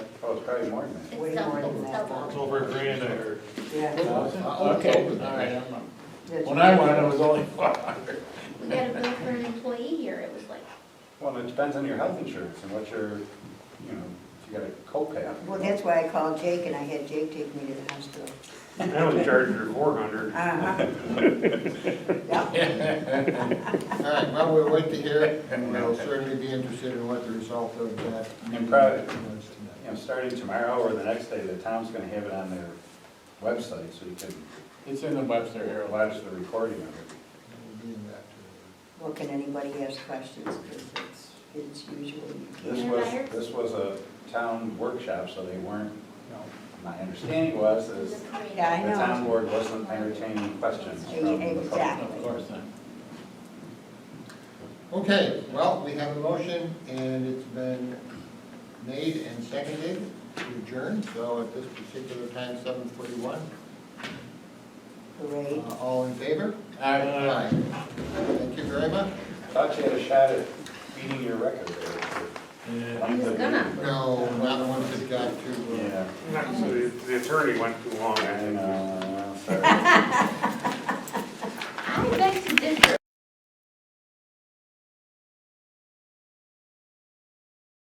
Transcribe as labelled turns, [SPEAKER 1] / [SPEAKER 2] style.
[SPEAKER 1] Oh, it's probably more than that.
[SPEAKER 2] It's double, it's
[SPEAKER 3] It's
[SPEAKER 2] double.
[SPEAKER 3] over a grand, I heard.
[SPEAKER 4] Yeah,
[SPEAKER 3] Okay. All right, I'm not-
[SPEAKER 4] yeah.
[SPEAKER 3] when I went, it was only five.
[SPEAKER 2] We got a bill for an employee here, it was like,
[SPEAKER 1] Well, it depends on your health insurance and what your, you know, if you got a copay.
[SPEAKER 4] Well, that's why I called Jake and I had Jake take me to the hospital.
[SPEAKER 5] I was charging her four hundred.
[SPEAKER 4] Uh-huh. Yep,
[SPEAKER 6] All right, well, we'll wait to hear, and we'll certainly be interested in what the result of that.
[SPEAKER 1] And probably-
[SPEAKER 6] meeting is
[SPEAKER 1] You know,
[SPEAKER 6] tonight.
[SPEAKER 1] starting tomorrow or the next day, the town's gonna have it on their website, so you can,
[SPEAKER 3] It's in the Webster
[SPEAKER 1] or
[SPEAKER 3] Herald.
[SPEAKER 1] watch the recording of it.
[SPEAKER 6] We'll be in that too.
[SPEAKER 4] well, can anybody ask questions, because it's, it's usually,
[SPEAKER 1] This
[SPEAKER 2] Yeah,
[SPEAKER 1] was,
[SPEAKER 2] Myers?
[SPEAKER 1] this was a town workshop, so they weren't, my understanding was,
[SPEAKER 2] this
[SPEAKER 1] is
[SPEAKER 2] is crazy.
[SPEAKER 4] Yeah, I
[SPEAKER 1] the
[SPEAKER 4] know.
[SPEAKER 1] town board wasn't entertaining questions from the public.
[SPEAKER 4] Exactly.
[SPEAKER 3] Of course not.
[SPEAKER 6] Okay, well, we have a motion, and it's been made and seconded to adjourn, so at this particular time, seven forty-one. uh,
[SPEAKER 4] parade.
[SPEAKER 6] All in favor?
[SPEAKER 3] All right.
[SPEAKER 6] Aye. Thank you very much.
[SPEAKER 1] Thought you had a shot at beating your record there.
[SPEAKER 3] Yeah.
[SPEAKER 2] He was gonna.
[SPEAKER 6] No, not the ones that got to, uh,
[SPEAKER 1] Yeah.
[SPEAKER 5] The attorney went too long, I
[SPEAKER 1] And,
[SPEAKER 5] think.
[SPEAKER 1] uh, sorry.